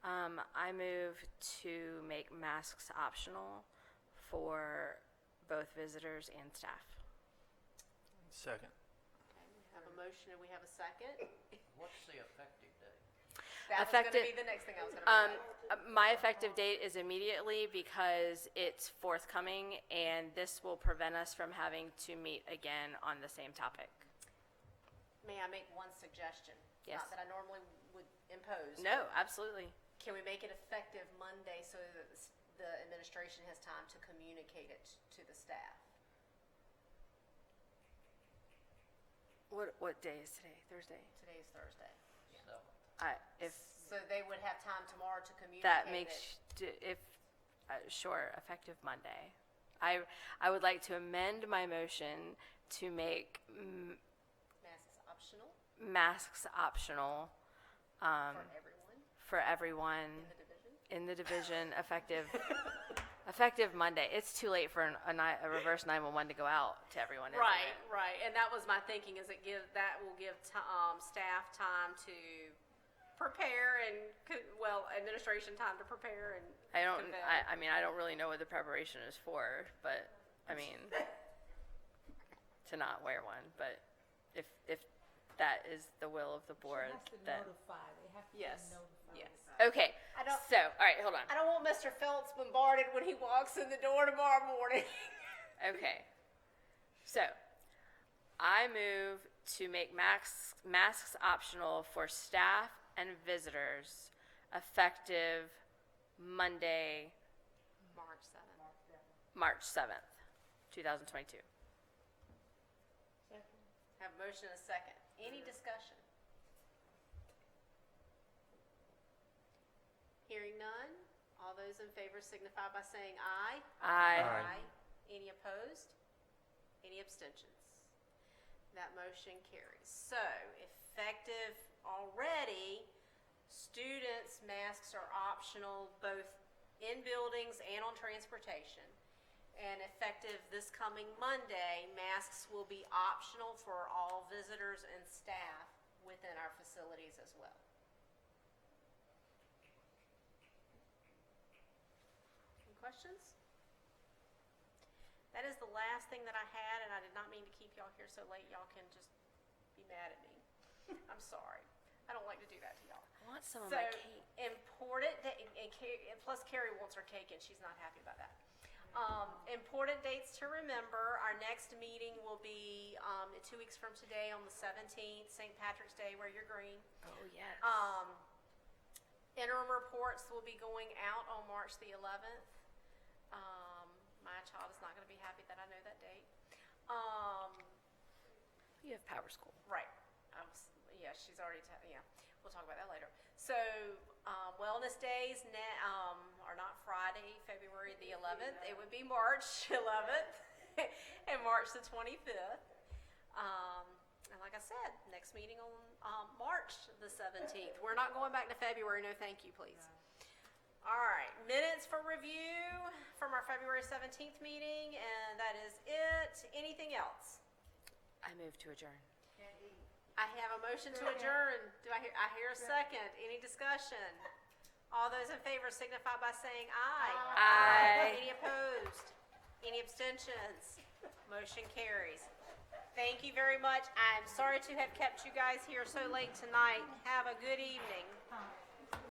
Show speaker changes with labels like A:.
A: Um, I move to make masks optional for both visitors and staff.
B: Second.
C: Have a motion and we have a second?
D: What's the effective date?
C: That was going to be
A: Effective-
C: the next thing I was going to
A: Um,
C: bring up.
A: uh, my effective date is immediately because it's forthcoming, and this will prevent us from having to meet again on the same topic.
C: May I make one suggestion?
A: Yes.
C: Not that I normally would impose.
A: No, absolutely.
C: Can we make it effective Monday so that the s- the administration has time to communicate it to the staff?
A: What, what day is today? Thursday?
C: Today is Thursday.
D: Seventh.
A: I, Uh, if
C: So they would have time tomorrow to communicate
A: that
C: it.
A: makes, if, uh, sure, effective Monday. I, I would like to amend my motion to make m-
C: Masks optional
A: masks optional
C: for everyone
A: for everyone
C: in the division.
A: in the division effective, effective Monday. It's too late for an- a ni- a reverse 911 to go out to everyone, isn't it?
C: Right, right, and that was my thinking, is it give, that will give ti- um, staff time to prepare and, co- well, administration time to prepare and.
A: I don't,
C: convey.
A: I, I mean, I don't really know what the preparation is for, but, I mean, to not wear one, but if, if that is the will of the board,
E: has to
A: then.
E: notify, they have to be
C: Yes,
E: notified.
C: yes.
A: Okay,
C: I don't-
A: so, all right, hold on.
C: I don't want Mr. Phelps bombarded when he walks in the door tomorrow morning.
A: Okay. So, I move to make masks, masks optional for staff and visitors effective Monday,
C: March seventh.
A: March 7th, 2022.
C: Have a motion and a second. Any discussion? Hearing none, all those in favor signify by saying aye.
A: I,
C: Any opposed? Any abstentions? That motion carries. So effective already, students' masks are optional both in buildings and on transportation. And effective this coming Monday, masks will be optional for all visitors and staff within our facilities as well. Any questions? That is the last thing that I had, and I did not mean to keep y'all here so late. Y'all can just be mad at me. I'm sorry. I don't like to do that to y'all.
A: I want some of
C: So
A: my cake.
C: important da- and, and, Ca- and plus Carrie wants her cake and she's not happy about that. Um, important dates to remember. Our next meeting will be um, two weeks from today on the 17th, St. Patrick's Day. Wear your green.
A: Oh, yes.
C: Um, interim reports will be going out on March the 11th. Um, my child is not going to be happy that I know that date. Um,
A: You have power school.
C: Right. I was, yeah, she's already, ta- yeah, we'll talk about that later. So, um, wellness days ne- um, are not Friday, February the 11th. It would be March 11th and March the 25th. Um, and like I said, next meeting on um, March the 17th. We're not going back to February. No, thank you, please. All right, minutes for review from our February 17th meeting, and that is it. Anything else?
A: I move to adjourn.
C: I have a motion to adjourn. Do I hear, I hear a second. Any discussion? All those in favor signify by saying aye.
A: Aye.
C: Any opposed? Any abstentions? Motion carries. Thank you very much. I'm sorry to have kept you guys here so late tonight. Have a good evening.